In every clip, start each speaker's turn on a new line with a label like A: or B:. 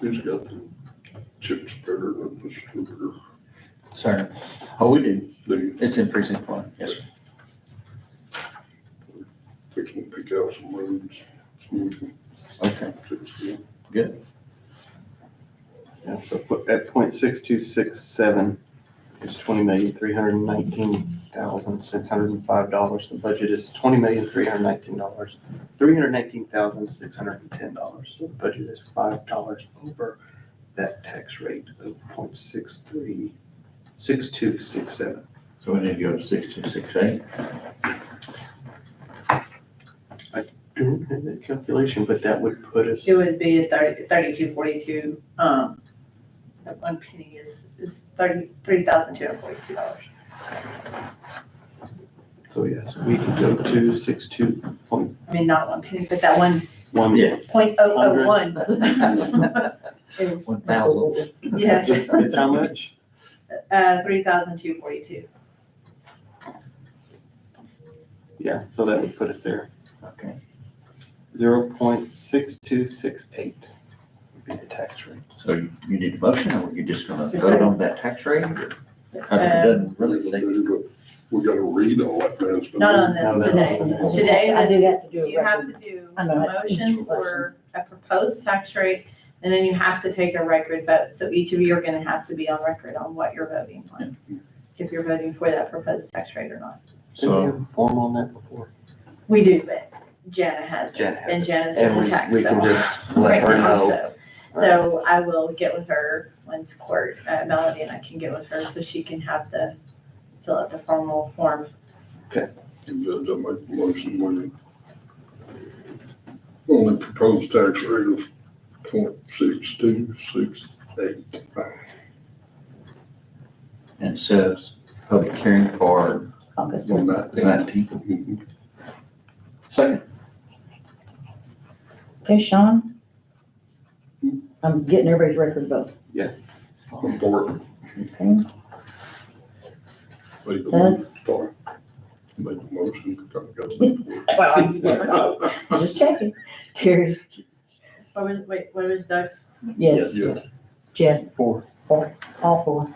A: Who's got the chip spreader and the distributor?
B: Sorry. Oh, we do.
A: They,
B: It's in precinct one. Yes, sir.
A: they can pick out some roads. so we can
B: Okay.
A: fix them.
C: Yeah, so put- at point six two six seven is twenty million, three hundred and nineteen thousand, six hundred and five dollars. The budget is twenty million, three hundred and nineteen dollars, three hundred and nineteen thousand, six hundred and ten dollars. The budget is five dollars over that tax rate of point six three, six two six seven.
B: So we need to go to six two six eight.
C: Don't have that calculation, but that would put us,
D: It would be a thirty, thirty-two forty-two, um, that one penny is, is thirty, three thousand two hundred forty-two dollars.
C: so yes, we could go to six two point
D: I mean, not one penny, but that one
C: one.
B: Yeah.
D: point oh oh one is,
B: One thousand.
D: yes,
C: It's, it's how much?
D: uh, three thousand two forty-two.
C: Yeah, so that would put us there.
B: Okay.
C: Zero point six two six eight would be the tax rate.
B: So you you need a motion or you're just gonna vote on that tax rate? or- I mean, It doesn't really say.
A: We gotta read all that mess. but
D: Not on
C: No,
D: this
C: that's-
D: today. Today,
E: I do have to do a
D: you have to
E: record.
D: do
E: I
D: a
E: know, I-
D: motion for a proposed tax rate, and then you have to take a record vote. So each of you are gonna have to be on record on what you're voting on, if you're voting for that proposed tax rate or not.
C: Didn't we
B: So-
C: have a form on that before?
D: We do, but Jana has it,
C: Janet has
D: and
C: it.
D: Jana's
C: And
D: on
C: we,
D: tax,
C: we can
D: so.
C: just
D: right
C: let her
D: now,
C: know.
D: so- So I will get with her once court, uh, Melody and I can get with her, so she can have the, fill out the formal form
A: Judge, I make a motion when on the proposed tax rate of point six two six eight.
B: And it says public hearing for
D: August.
A: On that.
B: nineteen.
A: Mhm.
B: Second.
E: Okay, Sean? I'm getting everybody's record vote.
A: I'm for it.
E: Okay.
A: Make a
E: Huh?
A: motion for it. Make a motion. Got- got some for it.
E: Just checking. Terry?
D: What was, wait, what was Doug's
E: Yes.
A: Yes.
E: Jeff?
C: Four.
E: Four. All four.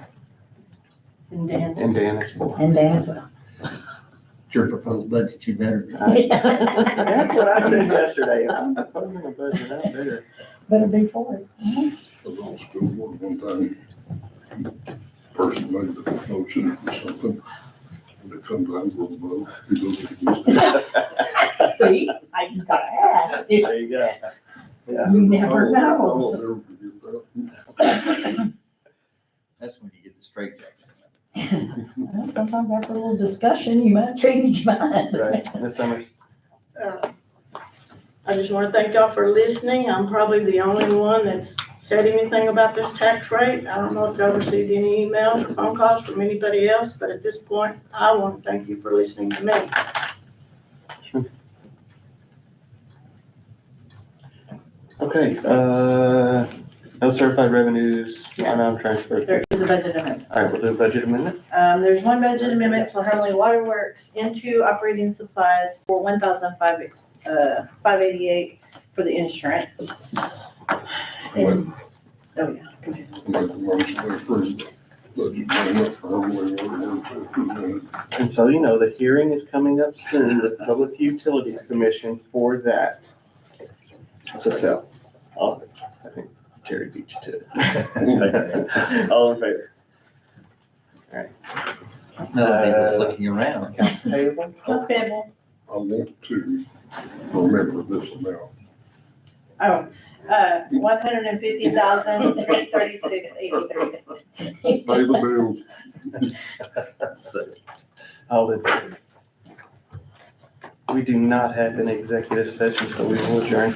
D: and Dan's?
C: And Dan is four.
E: And Dan as well.
B: Your proposed budget, you better.
C: That's what I said yesterday. If I'm proposing a budget, I better.
E: Better be four. Mhm.
A: I was on school board one time. Person made the motion for something. And it comes out with a vote. He goes against it.
E: See, I gotta ask. You
C: There you go. Yeah.
E: never know.
A: I'll never forget that.
B: That's when you get the straight jacket.
E: Well, Sometimes after a little discussion, you might change your mind.
C: Right, Ms. Summers,
F: Uh, I just want to thank y'all for listening. I'm probably the only one that's said anything about this tax rate. I don't know if y'all received any emails or phone calls from anybody else, but at this point, I want to thank you for listening to me.
C: okay, uh, no certified revenues,
D: Yeah.
C: line item transfers.
D: There is a budget amendment.
C: All right, we'll do a budget amendment.
D: Um, there's one budget amendment for Hurley Water Works into operating supplies for one thousand five, uh, five eighty-eight for the insurance. And- Oh, yeah, go ahead.
A: Make a motion to approve the budget amendment for Hardway Water Works presented.
C: And so you know, the hearing is coming up soon, the Public Utilities Commission for that. So, so, all- I think Jerry beat you to it. All in favor?
B: Another thing was looking around.
C: Accounts payable?
D: Accounts payable,
A: I want to remember this amount.
D: oh, uh, one hundred and fifty thousand, three thirty-six,
A: Pay
D: eighty-three.
A: the bills.
C: All in favor? We do not have an executive session, so we will adjourn.